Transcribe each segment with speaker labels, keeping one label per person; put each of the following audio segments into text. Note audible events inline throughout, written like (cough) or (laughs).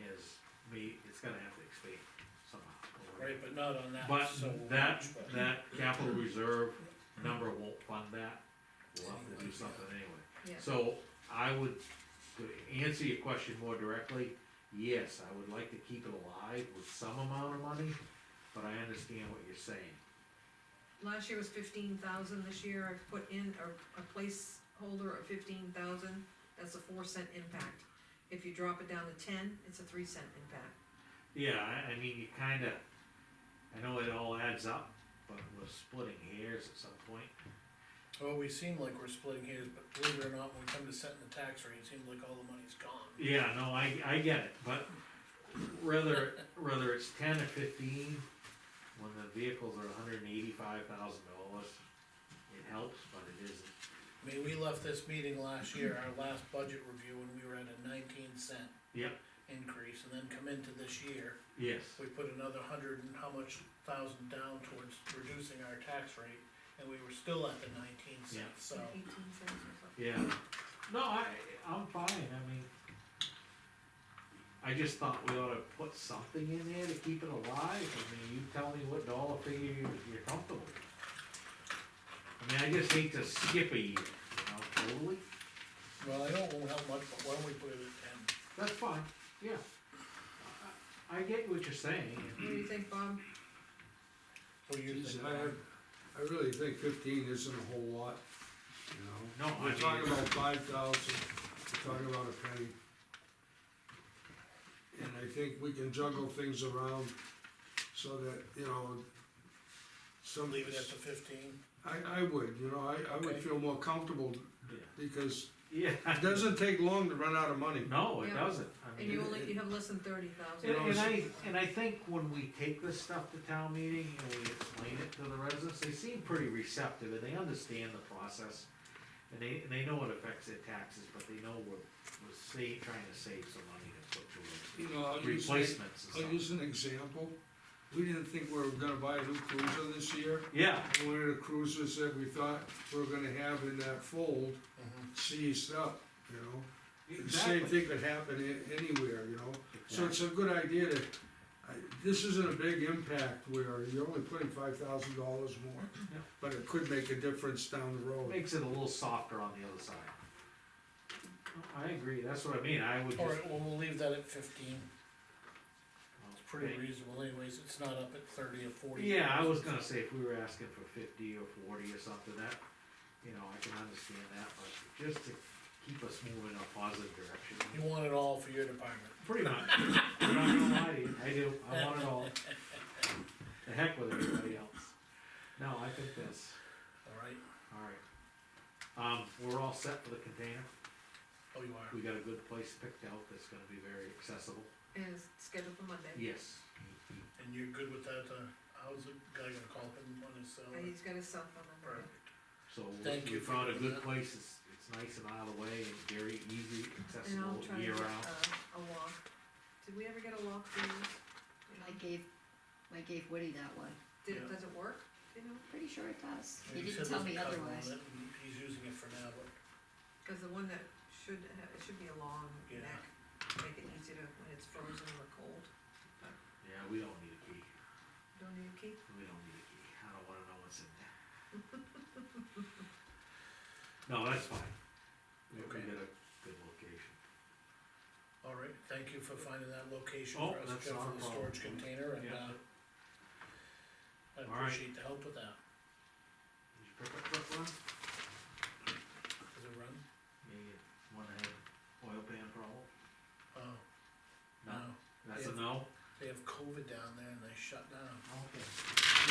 Speaker 1: is we, it's gonna have to expand somehow.
Speaker 2: right, but not on that
Speaker 1: But
Speaker 2: so
Speaker 1: that,
Speaker 2: much, but-
Speaker 1: that capital reserve number won't fund that, we'll have to do something anyway.
Speaker 3: yeah.
Speaker 1: So I would, to answer your question more directly, yes, I would like to keep it alive with some amount of money, but I understand what you're saying.
Speaker 3: Last year was fifteen thousand, this year I've put in a, a placeholder of fifteen thousand, that's a four cent impact. If you drop it down to ten, it's a three cent impact.
Speaker 1: Yeah, I, I mean, you kinda, I know it all adds up, but we're splitting hairs at some point.
Speaker 2: Well, we seem like we're splitting hairs, but believe it or not, when we come to setting the tax rate, it seems like all the money's gone.
Speaker 1: Yeah, no, I, I get it, but whether, whether it's ten or fifteen, when the vehicles are hundred and eighty-five thousand dollars, it helps, but it isn't.
Speaker 2: I mean, we left this meeting last year, our last budget review, and we were at a nineteen cent
Speaker 1: Yep.
Speaker 2: increase, and then come into this year,
Speaker 1: Yes,
Speaker 2: we put another hundred and how much thousand down towards reducing our tax rate, and we were still at the nineteen
Speaker 1: Yeah.
Speaker 2: cents, so.
Speaker 3: Eighteen cents or something.
Speaker 1: yeah, no, I, I'm fine, I mean, I just thought we ought to put something in there to keep it alive, I mean, you tell me what dollar figure you- you're comfortable with. I mean, I just hate to skip a year, you know, totally,
Speaker 2: Well, I know it won't help much, but why don't we put it at ten?
Speaker 1: that's fine, yeah. I- I I get what you're saying,
Speaker 3: What do you think, Bob?
Speaker 2: What do you
Speaker 4: Geez,
Speaker 2: think?
Speaker 4: I have- I really think fifteen isn't a whole lot, you know?
Speaker 1: No, I
Speaker 4: We're
Speaker 1: mean-
Speaker 4: talking about five thousand, we're talking about a penny. And I think we can juggle things around so that, you know, some.
Speaker 2: Leave it at the fifteen?
Speaker 4: I, I would, you know, I, I would
Speaker 2: Okay.
Speaker 4: feel more comfortable
Speaker 1: Yeah.
Speaker 4: because
Speaker 1: Yeah.
Speaker 4: it doesn't take long to run out of money.
Speaker 1: No, it
Speaker 3: Yeah.
Speaker 1: doesn't. I
Speaker 3: And
Speaker 1: mean,
Speaker 3: you only, you have less than thirty thousand.
Speaker 1: And,
Speaker 4: know,
Speaker 1: and I, and I think when we take this stuff to town meeting and we explain it to the residents, they seem pretty receptive and they understand the process. And they, and they know it affects their taxes, but they know we're, we're sa- trying to save some money to put
Speaker 4: You know, I'll
Speaker 1: towards
Speaker 4: use, I'll
Speaker 1: replacements and stuff.
Speaker 4: use an example. We didn't think we were gonna buy a new cruiser this year.
Speaker 1: Yeah,
Speaker 4: one of the cruisers that we thought we were gonna have in that fold Mm-hmm. seized up, you know? The same
Speaker 1: exactly.
Speaker 4: thing could happen a- anywhere, you know? So it's a good idea to, I, this isn't a big impact where you're only putting five thousand dollars more,
Speaker 1: Yeah.
Speaker 4: but it could make a difference down the road.
Speaker 1: Makes it a little softer on the other side. No, I agree, that's what I mean, I would just.
Speaker 2: Alright, well, we'll leave that at fifteen, it's pretty
Speaker 1: Okay.
Speaker 2: reasonable anyways, it's not up at thirty or forty.
Speaker 1: Yeah, I was gonna say if we were asking for fifty or forty or something, that, you know, I can understand that, but just to keep us moving in a positive
Speaker 2: You
Speaker 1: direction.
Speaker 2: want it all for your department.
Speaker 1: Pretty much, I'm not gonna lie to you, I do, I want it all. The heck with everybody else. No, I think that's,
Speaker 2: Alright,
Speaker 1: alright. Um, we're all set for the container,
Speaker 2: oh, you are.
Speaker 1: we got a good place picked out that's gonna be very accessible.
Speaker 3: And it's scheduled for Monday.
Speaker 1: Yes,
Speaker 2: And you're good with that, uh, how's the guy gonna call him on his cell?
Speaker 3: And Uh, he's got his cell phone number.
Speaker 2: Perfect.
Speaker 1: so we-
Speaker 2: Thank
Speaker 1: we
Speaker 2: you for
Speaker 1: found a
Speaker 2: doing
Speaker 1: good
Speaker 2: that.
Speaker 1: place, it's, it's nice and out of the way and very easy,
Speaker 3: And I'll
Speaker 1: accessible
Speaker 3: try to
Speaker 1: year
Speaker 3: get uh,
Speaker 1: round.
Speaker 3: a, a walk. Did we ever get a walk for
Speaker 5: I
Speaker 3: you?
Speaker 5: gave, I gave Woody that one,
Speaker 3: Did,
Speaker 2: Yeah.
Speaker 3: does it work? Do you know?
Speaker 5: pretty sure it does, he
Speaker 2: He
Speaker 5: didn't
Speaker 2: said
Speaker 5: tell
Speaker 2: there's
Speaker 5: me
Speaker 2: a cover on
Speaker 5: otherwise.
Speaker 2: it, and He's using it for now, but
Speaker 3: Cause the one that should have, it should be a long
Speaker 2: Yeah.
Speaker 3: neck, make it easy to, when it's frozen or cold.
Speaker 1: Yeah, we don't need a key.
Speaker 3: Don't need a key?
Speaker 1: We don't need a key. I don't wanna know what's in
Speaker 3: (laughs)
Speaker 1: there. No, that's fine. We we
Speaker 2: Okay.
Speaker 1: got a good location.
Speaker 2: All right, thank you for finding that location
Speaker 1: Oh,
Speaker 2: for us,
Speaker 1: that's
Speaker 2: Jeff,
Speaker 1: not
Speaker 2: for
Speaker 1: a
Speaker 2: the
Speaker 1: problem.
Speaker 2: storage container, and,
Speaker 1: Yeah.
Speaker 2: uh, I
Speaker 1: All right.
Speaker 2: appreciate the help with that.
Speaker 1: Did you pick up that one?
Speaker 2: Does it run?
Speaker 1: Maybe one had oil pan problem?
Speaker 2: Oh,
Speaker 1: No,
Speaker 2: no,
Speaker 1: that's a
Speaker 2: Yeah.
Speaker 1: no?
Speaker 2: they have COVID down there and they shut down,
Speaker 1: Okay.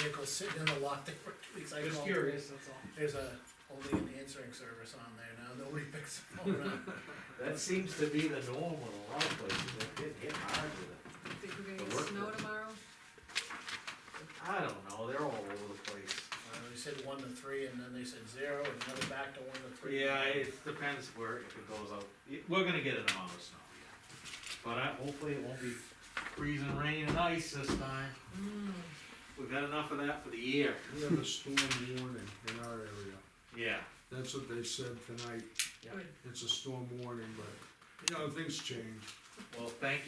Speaker 2: vehicles sitting in the lot, they were, two weeks. I
Speaker 1: Just
Speaker 2: called.
Speaker 1: curious, that's all.
Speaker 2: There's a, only an answering service on there now, nobody picks the phone up.
Speaker 1: That seems to be the norm in a lot of places. They're getting hit hard with it.
Speaker 3: Think we're gonna
Speaker 1: The
Speaker 3: get snow
Speaker 1: workforce.
Speaker 3: tomorrow?
Speaker 1: I don't know, they're all over the place.
Speaker 2: Uh, they said one to three, and then they said zero, and now they're back to one to three.
Speaker 1: Yeah, it depends where, if it goes out, It- we're gonna get an amount of snow, yeah. But I, hopefully it won't be freezing rain and ice this time.
Speaker 3: mm,
Speaker 1: We've had enough of that for the year.
Speaker 4: We have a storm warning in our area,
Speaker 1: Yeah.
Speaker 4: that's what they said tonight,
Speaker 1: Yeah.
Speaker 3: Good.
Speaker 4: it's a storm warning, but, you know, things change.
Speaker 1: Well, thank you.